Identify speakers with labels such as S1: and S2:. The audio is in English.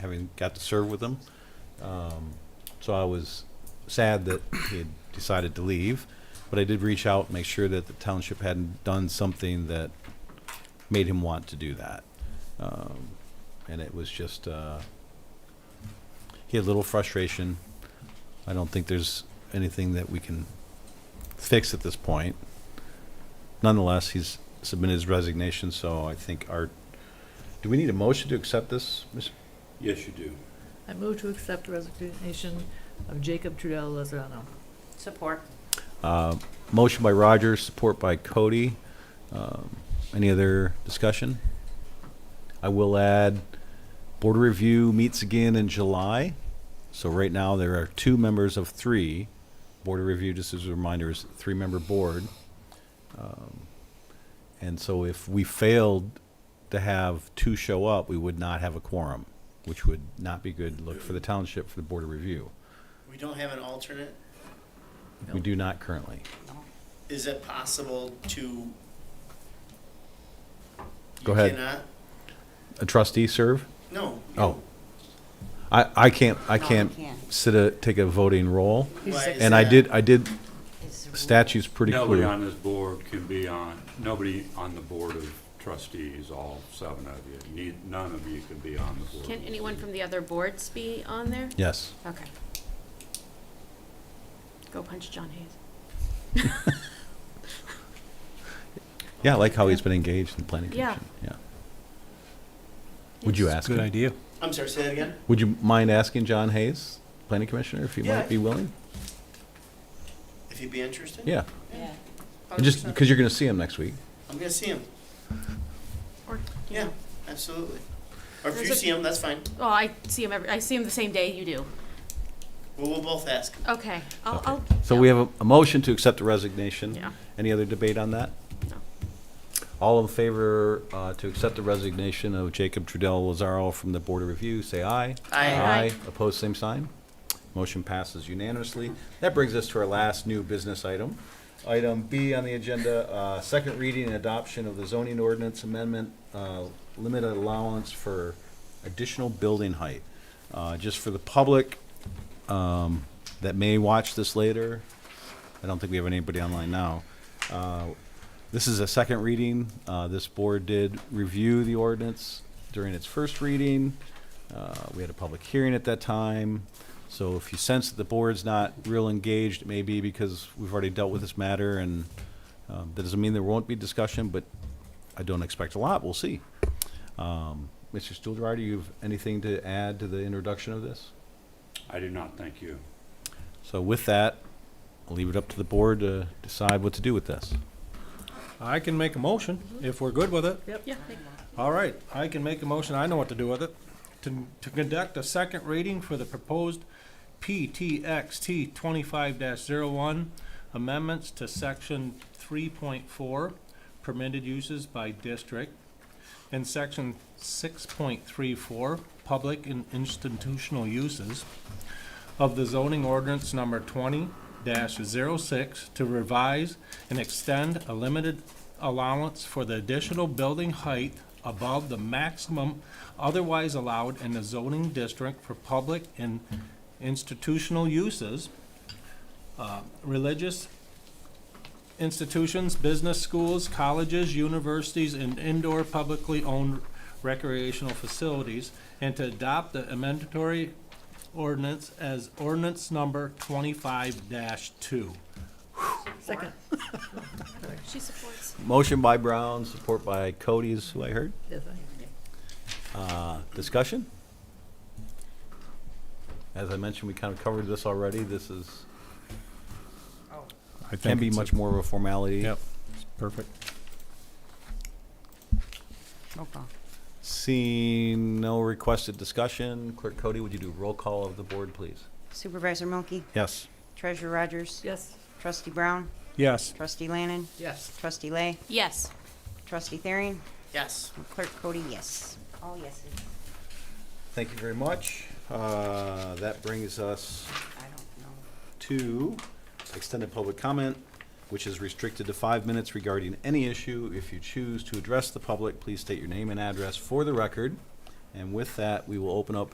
S1: having got to serve with him. Um, So I was sad that he had decided to leave, but I did reach out, make sure that the township hadn't done something that made him want to do that. Um, And it was just, uh, he had a little frustration. I don't think there's anything that we can fix at this point. Nonetheless, he's submitted his resignation, so I think our, do we need a motion to accept this, Ms.
S2: Yes, you do.
S3: I move to accept the resignation of Jacob Trudell Lozano.
S4: Support.
S1: Uh, Motion by Rogers, support by Cody. Um, Any other discussion? I will add, Board of Review meets again in July. So right now, there are two members of three. Board of Review, just as a reminder, is a three-member board. Um, And so if we failed to have two show up, we would not have a quorum, which would not be good look for the township for the Board of Review.
S5: We don't have an alternate.
S1: We
S3: No.
S1: do not currently.
S5: Is it possible to?
S1: Go
S5: You
S1: ahead.
S5: cannot-
S1: A trustee serve?
S5: No.
S1: Oh. I, I can't, I
S4: No, you
S1: can't
S4: can't.
S1: sit a, take a voting roll.
S5: Why is
S1: And I
S5: that?
S1: did, I did,
S4: Is the
S1: statute's pretty
S2: Nobody
S1: clear.
S2: on this board can be on, nobody on the board of trustees, all seven of you. Need, none of you can be on the board.
S6: Can anyone from the other boards be on there?
S1: Yes.
S6: Okay. Go punch John Hayes.
S1: Yeah, I like how he's been engaged in the planning
S6: Yeah.
S1: commission. Yeah. Would you ask
S7: Good
S1: him?
S7: idea.
S5: I'm sorry, say that again?
S1: Would you mind asking John Hayes, planning commissioner, if he
S5: Yeah.
S1: might be willing?
S5: If you'd be interested?
S1: Yeah.
S4: Yeah.
S1: Just because you're going to see him next week.
S5: I'm gonna see him.
S6: Or, you
S5: Yeah,
S6: know.
S5: absolutely. Or if
S6: There's
S5: you
S6: a-
S5: see him, that's fine.
S6: Oh, I see him every, I see him the same day you do.
S5: Well, we'll both ask.
S6: Okay. I'll,
S1: Okay.
S6: I'll.
S1: So we have a, a motion to accept the resignation.
S6: Yeah.
S1: Any other debate on that?
S6: No.
S1: All in favor uh, to accept the resignation of Jacob Trudell Lazaro from the Board of Review, say aye.
S5: Aye.
S6: Aye.
S1: Opposed, same sign. Motion passes unanimously. That brings us to our last new business item. Item B on the agenda, uh, second reading and adoption of the zoning ordinance amendment, uh, limit allowance for additional building height. Uh, Just for the public um, that may watch this later, I don't think we have anybody online now. Uh, This is a second reading. Uh, This board did review the ordinance during its first reading. Uh, We had a public hearing at that time. So if you sense that the board's not real engaged, it may be because we've already dealt with this matter and um, that doesn't mean there won't be discussion, but I don't expect a lot. We'll see. Um, Mr. Stuhldreher, do you have anything to add to the introduction of this?
S2: I do not thank you.
S1: So with that, I'll leave it up to the board to decide what to do with this.
S7: I can make a motion if we're good with it.
S6: Yeah.
S7: All right, I can make a motion, I know what to do with it. To, to conduct a second reading for the proposed PTXT twenty-five one amendments to section three point four, permitted uses by district, and section six point three four, public and institutional uses of the zoning ordinance number twenty 6 to revise and extend a limited allowance for the additional building height above the maximum otherwise allowed in the zoning district for public and institutional uses, uh, religious institutions, business schools, colleges, universities, and indoor publicly owned recreational facilities, and to adopt the amendatory ordinance as ordinance number twenty-five two.
S3: Second,
S6: She supports.
S1: Motion by Brown, support by Cody is who I heard.
S3: yes, I-
S1: Uh, Discussion? As I mentioned, we kind of covered this already. This is,
S7: I
S1: can be much more of a formality.
S7: Yep. Perfect.
S4: Roll call.
S1: Seeing no requested discussion, Clerk Cody, would you do roll call of the board, please?
S4: Supervisor Milky,
S1: Yes.
S4: Treasurer Rogers,
S3: yes.
S4: Trustee Brown,
S7: Yes.
S4: Trustee Lannan,
S3: Yes.
S4: Trustee Lay,
S6: Yes.
S4: Trustee Thering,
S5: Yes.
S4: and Clerk Cody, yes. All yeses.
S1: Thank you very much. Uh, That brings us
S4: I don't
S1: to
S4: know.
S1: extended public comment, which is restricted to five minutes regarding any issue. If you choose to address the public, please state your name and address for the record. And with that, we will open up